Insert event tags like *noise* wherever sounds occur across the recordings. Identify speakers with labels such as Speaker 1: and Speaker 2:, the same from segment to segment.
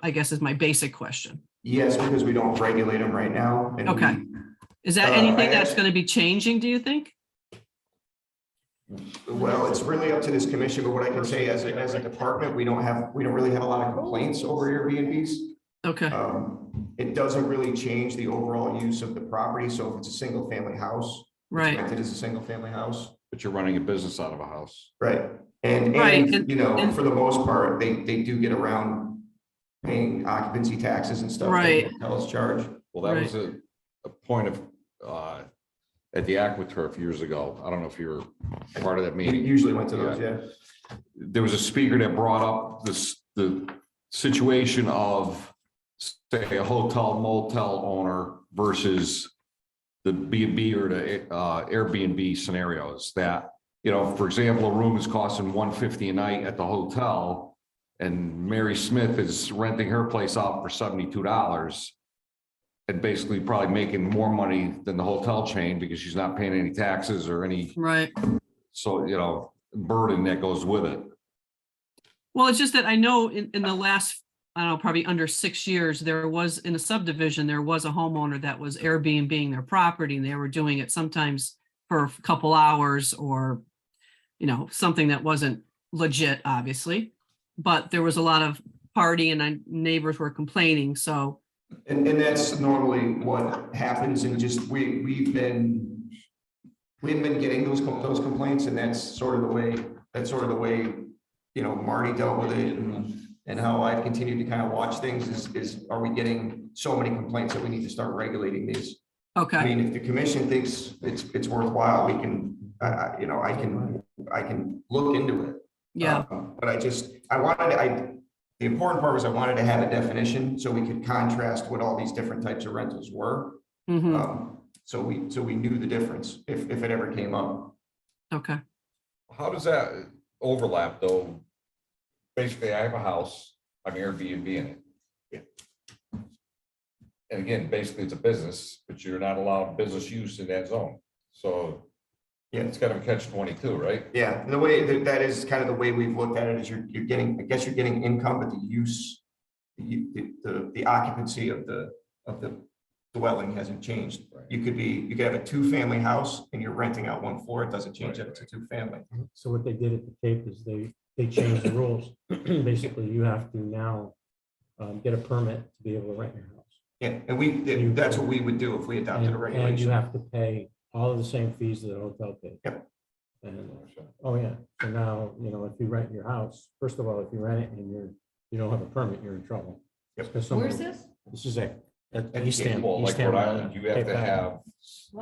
Speaker 1: I guess is my basic question.
Speaker 2: Yes, because we don't regulate them right now. and
Speaker 1: Okay. Is that
Speaker 2: Uh,
Speaker 1: anything
Speaker 2: I
Speaker 1: that's
Speaker 2: asked-
Speaker 1: going to be changing, do you think?
Speaker 2: we- Well, it's really up to this commission, but what I can say as a, as a department, we don't have, we don't really have a lot of complaints over Airbnbs.
Speaker 1: Okay,
Speaker 2: Um, It doesn't really change the overall use of the property. So if it's a single family house,
Speaker 1: right.
Speaker 2: rented as a single family house.
Speaker 3: But you're running a business out of a house.
Speaker 2: Right. And,
Speaker 1: Right,
Speaker 2: and,
Speaker 1: and-
Speaker 2: you know,
Speaker 1: and-
Speaker 2: for the most part, they, they do get around paying occupancy taxes and stuff. that
Speaker 1: Right.
Speaker 2: Hotels charge.
Speaker 3: Well, that was a, a point of, uh, at the AquaTurf years ago. I don't know if you were part of that
Speaker 2: We
Speaker 3: meeting.
Speaker 2: usually went to those, yeah.
Speaker 3: There was a speaker that brought up this, the situation of say a hotel motel owner versus the B and B or the uh, Airbnb scenarios that, you know, for example, a room is costing one fifty a night at the hotel and Mary Smith is renting her place out for seventy-two dollars and basically probably making more money than the hotel chain because she's not paying any taxes or any,
Speaker 1: Right.
Speaker 3: so, you know, burden that goes with it.
Speaker 1: Well, it's just that I know in, in the last, I don't know, probably under six years, there was in a subdivision, there was a homeowner that was Airbnb their property and they were doing it sometimes for a couple hours or, you know, something that wasn't legit, obviously. But there was a lot of party and I- neighbors were complaining. So,
Speaker 2: And, and that's normally what happens and just, we, we've been, we've been getting those, com- those complaints and that's sort of the way, that's sort of the way, you know, Marty dealt with it and, and how I've continued to kind of watch things is, is are we getting so many complaints that we need to start regulating these? I
Speaker 1: okay,
Speaker 2: mean, if the commission thinks it's, it's worthwhile, we can, I, I, you know, I can, I can look into it.
Speaker 1: yeah,
Speaker 2: Um, But I just, I wanted, I, the important part was I wanted to have a definition so we could contrast what all these different types of rentals were.
Speaker 1: mhm,
Speaker 2: Um, So we, so we knew the difference if, if it ever came up. uh,
Speaker 1: okay.
Speaker 3: How does that overlap though? Basically, I have a house, I'm Airbnb in it. And again, basically it's a business, but you're not allowed business use in that zone. So
Speaker 2: Yeah.
Speaker 3: it's kind of a catch twenty-two, right?
Speaker 2: Yeah, the way, that that is kind of the way we've looked at it is you're, you're getting, I guess you're getting income, but the use, the u- the, the- the occupancy of the, of the dwelling hasn't changed. You could be, you could have a two-family house and you're renting out one floor. It doesn't change if it's a two-family.
Speaker 4: So what they did at the Cape is they, they changed the
Speaker 3: *clears throat*
Speaker 4: rules. Basically, you have to now um, get a permit to be able to rent your house.
Speaker 2: Yeah, and we, that's what we would do if we adopted a
Speaker 4: And and you
Speaker 2: regulation.
Speaker 4: have to pay all of the same fees that a hotel pays.
Speaker 2: Yep.
Speaker 4: And, oh yeah, so now, you know, if you rent your house, first of all, if you rent it and you're, you don't have a permit, you're in trouble.
Speaker 2: Yep.
Speaker 4: Because someone-
Speaker 5: Where's this?
Speaker 4: This is a. at
Speaker 2: At
Speaker 4: East Ham-
Speaker 3: Well,
Speaker 4: East
Speaker 3: like
Speaker 4: Ham
Speaker 3: Rhode
Speaker 4: Island,
Speaker 3: Island, you have
Speaker 4: Cape
Speaker 3: to
Speaker 4: Island.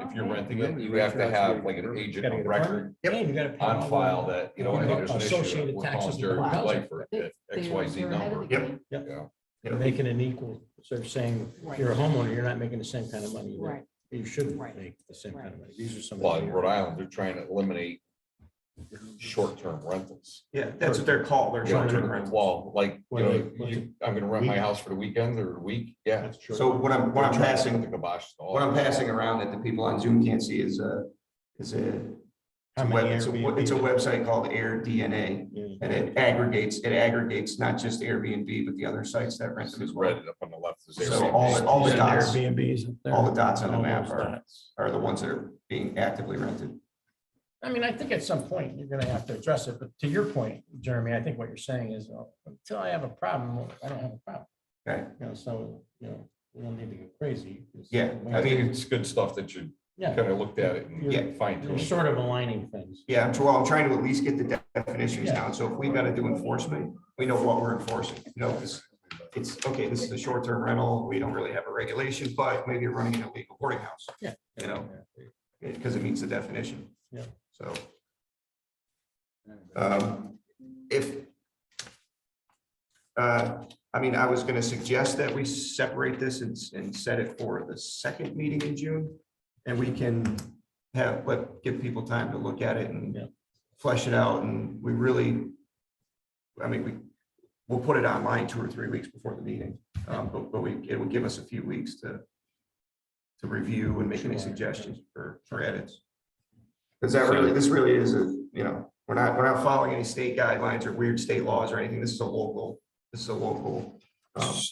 Speaker 3: have, if you're renting it, you have to have like an agent of record
Speaker 6: And you gotta pay all
Speaker 3: on
Speaker 6: the-
Speaker 3: file that, you know, hey, there's an issue.
Speaker 6: Associated
Speaker 3: We're
Speaker 6: taxes
Speaker 3: calling
Speaker 6: and
Speaker 3: Jerry
Speaker 6: deposits.
Speaker 3: Blake for X, Y, Z number.
Speaker 2: Yep.
Speaker 3: Yeah.
Speaker 4: They're Making an equal, so they're saying, if you're a homeowner, you're not making the same kind of money. that
Speaker 5: Right,
Speaker 4: You shouldn't
Speaker 5: Right.
Speaker 4: make the same kind of money. These are some. of
Speaker 3: Well, in
Speaker 4: the-
Speaker 3: Rhode Island, they're trying to eliminate short-term rentals.
Speaker 2: Yeah, that's what they're called. They're
Speaker 3: You know,
Speaker 2: short-term rentals.
Speaker 3: Well, like, you know, you- I'm gonna rent my house for the weekend or a week, yeah.
Speaker 4: That's true.
Speaker 2: So what I'm, what I'm
Speaker 3: The
Speaker 2: passing,
Speaker 3: kibosh. to all
Speaker 2: what I'm
Speaker 3: that.
Speaker 2: passing around that the people on Zoom can't see is a, is a
Speaker 4: How
Speaker 2: web-
Speaker 4: many
Speaker 2: it's a,
Speaker 4: Airbnb
Speaker 2: it's a
Speaker 4: did-
Speaker 2: website called Air DNA.
Speaker 4: Yeah.
Speaker 2: And it aggregates, it aggregates not just Airbnb, but the other sites that rent
Speaker 3: This
Speaker 2: them
Speaker 3: is
Speaker 2: as well.
Speaker 3: red up on the left. is
Speaker 2: So
Speaker 3: Airbnb.
Speaker 2: all, the- all the
Speaker 4: Yeah,
Speaker 2: dots,
Speaker 4: Airbnbs up there.
Speaker 2: all the dots on the
Speaker 4: All
Speaker 2: map
Speaker 4: those
Speaker 2: are,
Speaker 4: dots.
Speaker 2: are the ones that are being actively rented.
Speaker 4: I mean, I think at some point you're gonna have to address it, but to your point, Jeremy, I think what you're saying is, uh, until I have a problem, I don't have a problem.
Speaker 2: Okay.
Speaker 4: You know, so, you know, we don't need to get crazy. 'cause-
Speaker 2: Yeah,
Speaker 3: I think it's good stuff that you kind
Speaker 4: Yeah,
Speaker 3: of looked at it
Speaker 4: Yeah.
Speaker 3: and fine
Speaker 4: you're
Speaker 3: tuned.
Speaker 4: sort of aligning things.
Speaker 2: Yeah, I'm- well, I'm trying to at least get the de- definitions down. So if we've got to do enforcement, we know what we're enforcing. You know, it's, it's, okay, this is a short-term rental. We don't really have a regulation, but maybe you're running an illegal boarding house.
Speaker 4: Yeah.
Speaker 2: You know, because it meets the definition.
Speaker 4: Yeah.
Speaker 2: So. um, If. uh, I mean, I was gonna suggest that we separate this and, s- and set it for the second meeting in June. And we can have, but give people time to look at it
Speaker 4: Yeah.
Speaker 2: and flesh it out and we really. I mean, we, we'll put it online two or three weeks before the meeting, um, but, but we, it will give us a few weeks to. To review and make any
Speaker 4: Sure.
Speaker 2: suggestions for, for edits. Because that really, this really is a, you know, we're not, we're not following any state guidelines or weird state laws or anything. This is a local, this is a local. um,